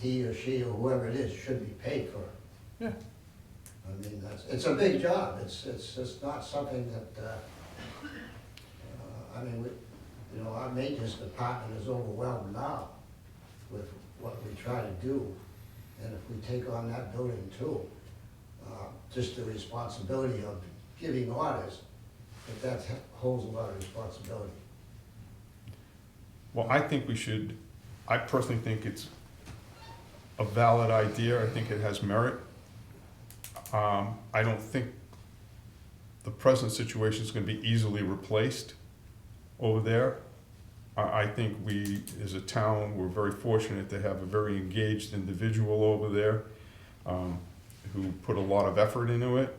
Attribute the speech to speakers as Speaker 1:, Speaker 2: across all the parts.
Speaker 1: he or she or whoever it is should be paid for.
Speaker 2: Yeah.
Speaker 1: I mean, that's, it's a big job, it's, it's, it's not something that, uh, uh, I mean, we, you know, our maintenance department is overwhelmed now with what we try to do. And if we take on that building too, uh, just the responsibility of giving orders, that that holds a lot of responsibility.
Speaker 2: Well, I think we should, I personally think it's a valid idea, I think it has merit. Um, I don't think the present situation is gonna be easily replaced over there. I, I think we, as a town, we're very fortunate to have a very engaged individual over there, um, who put a lot of effort into it.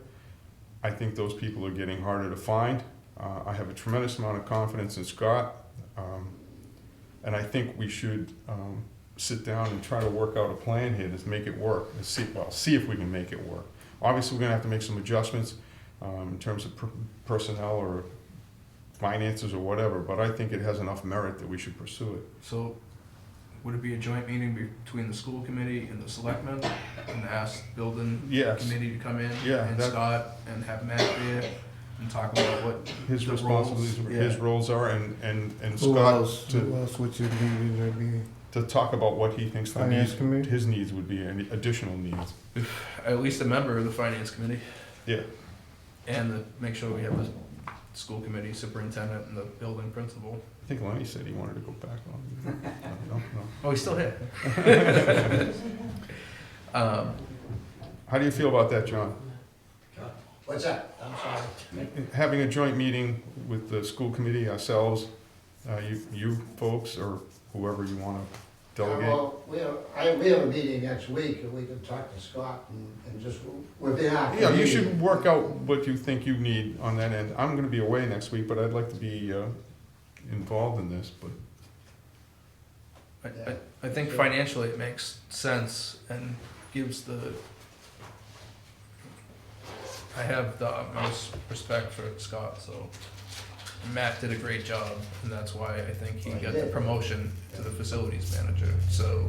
Speaker 2: I think those people are getting harder to find. Uh, I have a tremendous amount of confidence in Scott. Um, and I think we should um, sit down and try to work out a plan here to make it work. And see, well, see if we can make it work. Obviously, we're going to have to make some adjustments um, in terms of per- personnel or finances or whatever. But I think it has enough merit that we should pursue it.
Speaker 3: So, would it be a joint meeting between the school committee and the selectmen and ask building
Speaker 2: Yes,
Speaker 3: committee to come in?
Speaker 2: Yeah,
Speaker 3: And
Speaker 2: that-
Speaker 3: Scott and have Matt there and talk about what,
Speaker 2: his
Speaker 3: The
Speaker 2: responsibilities,
Speaker 3: roles,
Speaker 2: his
Speaker 3: yeah.
Speaker 2: roles are, and and and
Speaker 4: Who
Speaker 2: Scott
Speaker 4: else,
Speaker 2: to,
Speaker 4: who else would you need in that meeting?
Speaker 2: to talk about what he thinks the
Speaker 4: Finance
Speaker 2: needs,
Speaker 4: committee?
Speaker 2: his needs would be, and additional needs.
Speaker 3: at least a member of the finance committee.
Speaker 2: Yeah.
Speaker 3: And the, make sure we have the school committee superintendent and the building principal.
Speaker 2: I think Lenny said he wanted to go back on. I don't know.
Speaker 3: Oh, he's still here. Um,
Speaker 2: How do you feel about that, John?
Speaker 1: What's that? I'm sorry.
Speaker 2: having a joint meeting with the school committee, ourselves, uh, you, you folks, or whoever you wanna
Speaker 1: Yeah,
Speaker 2: delegate.
Speaker 1: Well, we have, I, we have a meeting next week, and we can talk to Scott and, and just, we're there.
Speaker 2: Yeah, you should work out what you think you need on that end. I'm gonna be away next week, but I'd like to be, uh, involved in this, but
Speaker 3: I, I, I think financially it makes sense and gives the. I have the utmost respect for Scott, so Matt did a great job, and that's why I think he got the promotion to the facilities manager, so.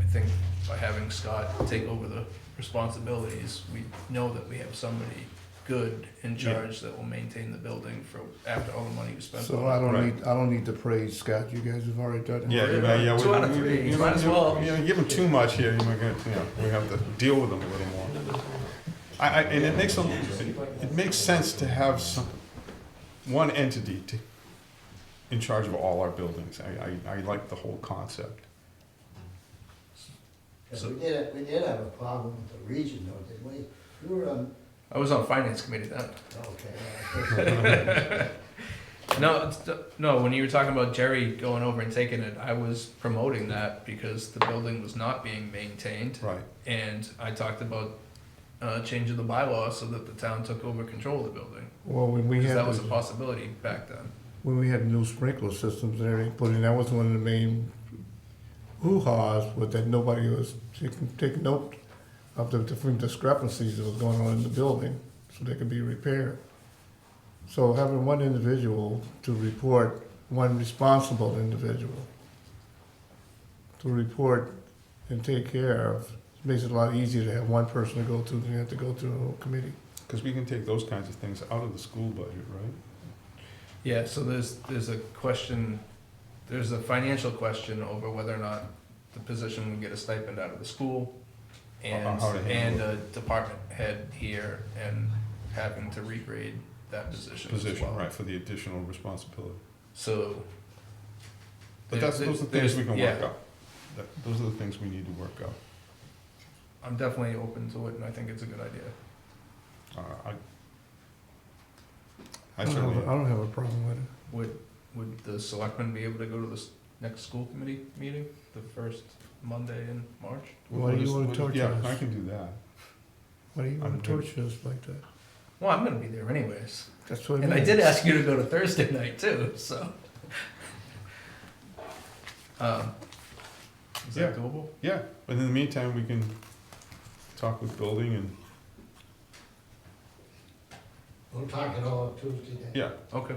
Speaker 3: I think by having Scott take over the responsibilities, we know that we have somebody good in
Speaker 2: Yeah.
Speaker 3: charge that will maintain the building for, after all the money we spent. on
Speaker 4: So
Speaker 3: it.
Speaker 4: I don't
Speaker 2: Right.
Speaker 4: need, I don't need to praise Scott, you guys have already done it.
Speaker 2: yeah, you may- yeah. we-
Speaker 3: Two out of
Speaker 2: we-
Speaker 3: three,
Speaker 2: you
Speaker 3: might as well.
Speaker 2: You know, give them too much here, you might get, you know, we have to deal with them a little more. I, I, and it makes a, it makes sense to have some, one entity to, in charge of all our buildings. I, I, I like the whole concept.
Speaker 1: Because we did, we did have a problem with the region though, didn't we? We were on,
Speaker 3: I was on finance committee then.
Speaker 1: okay.
Speaker 3: No, it's, no. When you were talking about Jerry going over and taking it, I was promoting that because the building was not being maintained,
Speaker 2: Right.
Speaker 3: and I talked about uh, changing the bylaw so that the town took over control of the building
Speaker 4: Well, when we
Speaker 3: because
Speaker 4: had,
Speaker 3: that was a
Speaker 4: the-
Speaker 3: possibility back then.
Speaker 4: when we had the new sprinkler systems and everything put in, that was one of the main hoo-haws, was that nobody was taking, taking note of the different discrepancies that was going on in the building, so they could be repaired. So having one individual to report, one responsible individual to report and take care of, makes it a lot easier to have one person to go to than you have to go through a whole committee.
Speaker 2: Because we can take those kinds of things out of the school budget, right?
Speaker 3: Yeah. So there's there's a question, there's a financial question over whether or not the position would get a stipend out of the school, and
Speaker 2: How to handle
Speaker 3: and
Speaker 2: it.
Speaker 3: a department head here and having to regrade that position. as
Speaker 2: Position,
Speaker 3: well.
Speaker 2: right, for the additional responsibility.
Speaker 3: So.
Speaker 2: But
Speaker 3: there-
Speaker 2: that's, those are the
Speaker 3: there's-
Speaker 2: things we can
Speaker 3: yeah,
Speaker 2: work out. That- Those are the things we need to work out.
Speaker 3: I'm definitely open to it, and I think it's a good idea.
Speaker 2: Uh, I, I
Speaker 4: don't have a- I
Speaker 2: certainly,
Speaker 4: don't have a problem with it.
Speaker 3: Would, would the selectmen be able to go to the s- next school committee meeting, the first Monday in March?
Speaker 4: Why do you wanna torture
Speaker 2: Yeah,
Speaker 4: us?
Speaker 2: I can do that.
Speaker 4: Why do you
Speaker 2: I'm
Speaker 4: want
Speaker 2: good.
Speaker 4: to torture us like that?
Speaker 3: Well, I'm gonna be there anyways,
Speaker 4: That's what I mean.
Speaker 3: and I did ask you to go to Thursday night too, so. Um, Is that
Speaker 2: Yeah.
Speaker 3: doable?
Speaker 2: Yeah, but in the meantime, we can talk with building and,
Speaker 1: We'll talk it all Tuesday then.
Speaker 2: yeah,
Speaker 3: Okay,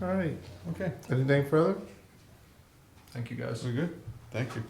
Speaker 4: All right,
Speaker 2: okay,
Speaker 4: anything further?
Speaker 3: thank you guys.
Speaker 2: we're good, thank you.